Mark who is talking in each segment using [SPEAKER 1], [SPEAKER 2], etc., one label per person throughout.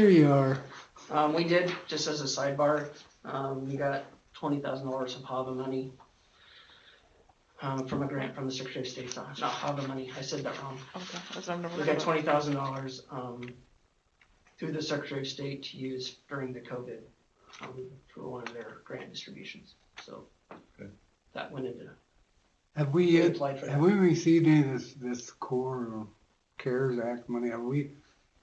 [SPEAKER 1] There you are.
[SPEAKER 2] Um, we did, just as a sidebar, um, we got twenty thousand dollars of HAVA money. Um, from a grant from the Secretary of State's office, not HAVA money, I said that wrong.
[SPEAKER 3] Okay, that's what I'm
[SPEAKER 2] We
[SPEAKER 3] never
[SPEAKER 2] got twenty thousand dollars, um, through the Secretary of State to use during the COVID, um, for one of their grant distributions, so.
[SPEAKER 4] Good.
[SPEAKER 2] That went into,
[SPEAKER 1] Have we,
[SPEAKER 2] we
[SPEAKER 1] uh,
[SPEAKER 2] applied for
[SPEAKER 1] have
[SPEAKER 2] that.
[SPEAKER 1] we received any of this, this core or CARES Act money? Have we,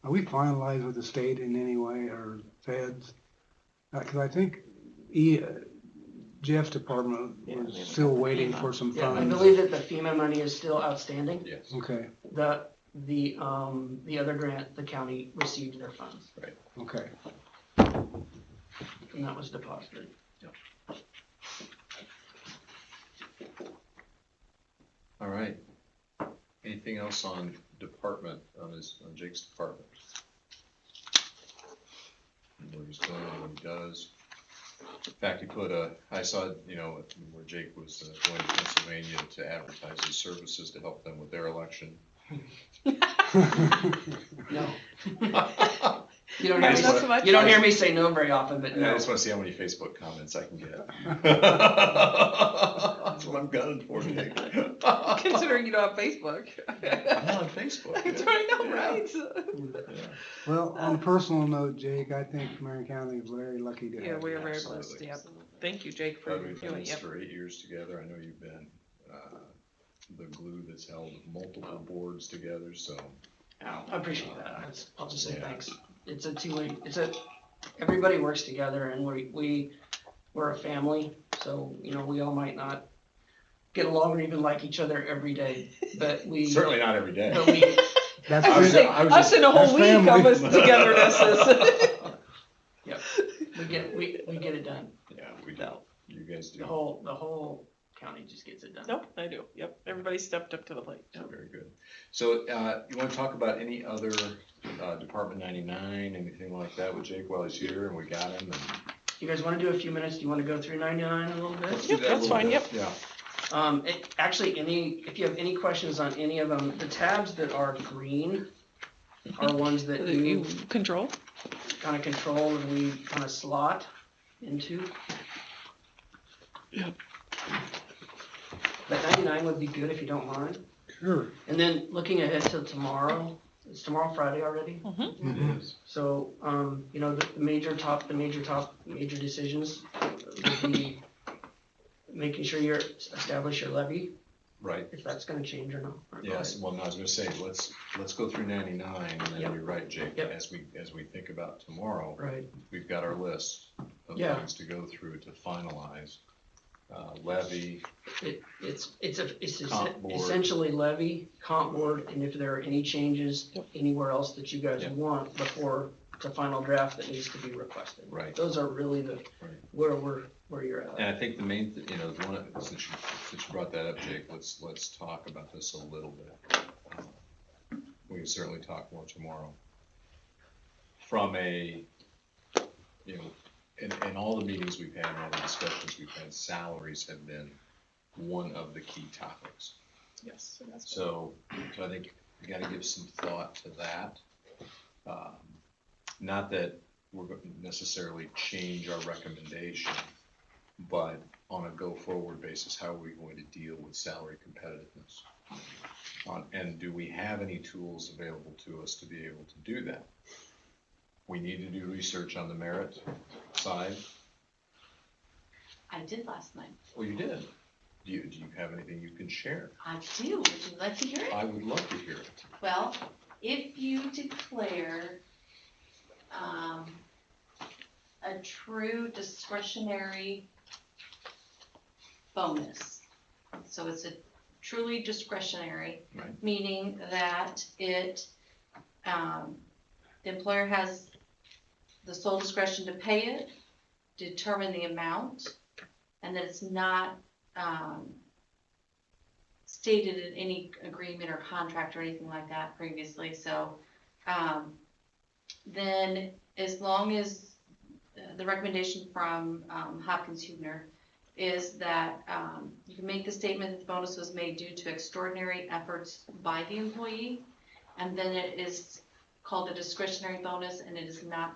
[SPEAKER 1] are we finalized with the state in any way or feds? Uh, cause I think E, uh, Jeff's department
[SPEAKER 3] Yeah, we
[SPEAKER 1] was
[SPEAKER 3] haven't
[SPEAKER 1] still
[SPEAKER 3] got the
[SPEAKER 1] waiting
[SPEAKER 3] FEMA.
[SPEAKER 1] for some
[SPEAKER 2] Yeah, I
[SPEAKER 1] funds.
[SPEAKER 2] believe that the FEMA money is still outstanding.
[SPEAKER 4] Yes.
[SPEAKER 1] Okay,
[SPEAKER 2] The, the, um, the other grant, the county received their funds,
[SPEAKER 1] okay.
[SPEAKER 2] and that was deposited.
[SPEAKER 4] All right. Anything else on department, on his, on Jake's department? Where he's going, what he does. In fact, he put a, I saw, you know, where Jake was uh, going to Pennsylvania to advertise his services to help them with their election.
[SPEAKER 2] No.
[SPEAKER 4] I
[SPEAKER 2] You don't
[SPEAKER 4] I
[SPEAKER 2] hear me,
[SPEAKER 4] just
[SPEAKER 3] That's
[SPEAKER 4] wanna-
[SPEAKER 3] what
[SPEAKER 2] you don't
[SPEAKER 3] I-
[SPEAKER 2] hear me say no very often, but no.
[SPEAKER 4] just wanna see how many Facebook comments I can get. That's what I'm gunning for, Jake. I'm
[SPEAKER 3] Considering you don't have Facebook.
[SPEAKER 4] on Facebook.
[SPEAKER 3] That's
[SPEAKER 4] yeah.
[SPEAKER 3] right, no,
[SPEAKER 4] Yeah.
[SPEAKER 3] right?
[SPEAKER 4] Yeah.
[SPEAKER 1] Well,
[SPEAKER 3] Uh,
[SPEAKER 1] on a personal note, Jake, I think Marion County is very lucky to
[SPEAKER 3] Yeah,
[SPEAKER 1] have.
[SPEAKER 3] we
[SPEAKER 1] you.
[SPEAKER 3] are very
[SPEAKER 4] Absolutely.
[SPEAKER 3] blessed, yep. Thank you, Jake, for
[SPEAKER 4] Todd, we've done
[SPEAKER 3] doing,
[SPEAKER 4] this
[SPEAKER 3] yep.
[SPEAKER 4] for eight years together, I know you've been, uh, the glue that's held multiple boards together, so.
[SPEAKER 2] I appreciate that. I just- I'll just say
[SPEAKER 4] Yeah.
[SPEAKER 2] thanks. It's a two-way, it's a, everybody works together and we, we, we're a family. So, you know, we all might not get along or even like each other every day, but we,
[SPEAKER 4] Certainly not every day.
[SPEAKER 2] but we,
[SPEAKER 1] That's
[SPEAKER 4] I
[SPEAKER 3] I
[SPEAKER 4] was-
[SPEAKER 3] was
[SPEAKER 1] it.
[SPEAKER 3] saying,
[SPEAKER 4] I was
[SPEAKER 3] us in a
[SPEAKER 1] just-
[SPEAKER 3] whole week
[SPEAKER 1] that's
[SPEAKER 3] of us
[SPEAKER 1] family.
[SPEAKER 3] togetherness is.
[SPEAKER 2] we get, we, we get it done.
[SPEAKER 4] Yeah, we do,
[SPEAKER 3] No,
[SPEAKER 4] you guys
[SPEAKER 2] The
[SPEAKER 4] do,
[SPEAKER 2] whole, the whole county just gets it done.
[SPEAKER 3] nope, I do, yep. Everybody stepped up to the plate.
[SPEAKER 4] So very good. So, uh, you wanna talk about any other, uh, Department ninety-nine, anything like that with Jake while he's here, and we got him, and.
[SPEAKER 2] You guys wanna do a few minutes? Do you wanna go through ninety-nine a little bit?
[SPEAKER 4] Let's do
[SPEAKER 3] Yep,
[SPEAKER 4] that a
[SPEAKER 3] that's
[SPEAKER 4] little
[SPEAKER 3] fine,
[SPEAKER 4] bit. Yeah,
[SPEAKER 2] Um, it, actually, any, if you have any questions on any of them, the tabs that are green are ones that you
[SPEAKER 3] Control?
[SPEAKER 2] kind of control and we kind of slot into.
[SPEAKER 3] Yep.
[SPEAKER 2] But ninety-nine would be good if you don't mind.
[SPEAKER 1] Sure.
[SPEAKER 2] And then looking ahead to tomorrow, it's tomorrow Friday already?
[SPEAKER 3] Mm-hmm,
[SPEAKER 1] Mhm.
[SPEAKER 4] it is.
[SPEAKER 2] So, um, you know, the the major top, the major top, major decisions would be making sure you're, establish your levy,
[SPEAKER 4] Right,
[SPEAKER 2] if that's gonna change or not. or not.
[SPEAKER 4] yes, well, no, I was gonna say, let's, let's go through ninety-nine, and
[SPEAKER 2] Yep.
[SPEAKER 4] then you're right, Jake,
[SPEAKER 2] Yep.
[SPEAKER 4] as we, as we think about tomorrow.
[SPEAKER 2] Right,
[SPEAKER 4] we've got our list of
[SPEAKER 2] Yeah.
[SPEAKER 4] things to go through to finalize. Uh, levy,
[SPEAKER 2] it, it's, it's, a it's es-
[SPEAKER 4] Comp board.
[SPEAKER 2] essentially levy, comp board, and if there are any changes
[SPEAKER 3] Yep.
[SPEAKER 2] anywhere else that you guys
[SPEAKER 4] Yep.
[SPEAKER 2] want before the final draft that needs to be requested.
[SPEAKER 4] right,
[SPEAKER 2] Those are really the,
[SPEAKER 4] Right.
[SPEAKER 2] where we're, where you're at.
[SPEAKER 4] and I think the main, th- you know, the one, since you, since you brought that up, Jake, let's, let's talk about this a little bit. Uh, We can certainly talk more tomorrow. From a, you know, in, in all the meetings we've had, and all the discussions we've had, salaries have been one of the key topics.
[SPEAKER 3] yes.
[SPEAKER 4] So, so I think you gotta give some thought to that. Um, Not that we're gonna necessarily change our recommendation, but on a go-forward basis, how are we going to deal with salary competitiveness? On- And do we have any tools available to us to be able to do that? We need to do research on the merit side.
[SPEAKER 5] I did last night.
[SPEAKER 4] Well, you did. Do you, do you have anything you can share?
[SPEAKER 5] I do. Would you like to hear it?
[SPEAKER 4] I would love to hear it.
[SPEAKER 5] Well, if you declare um, a true discretionary bonus, so it's a truly discretionary,
[SPEAKER 4] Right.
[SPEAKER 5] meaning that it um, the employer has the sole discretion to pay it, determine the amount, and that it's not um, stated in any agreement or contract or anything like that previously, so, um, then as long as uh, the recommendation from, um, Hopkins Hubner is that, um, you can make the statement that the bonus was made due to extraordinary efforts by the employee, and then it is called a discretionary bonus, and it is not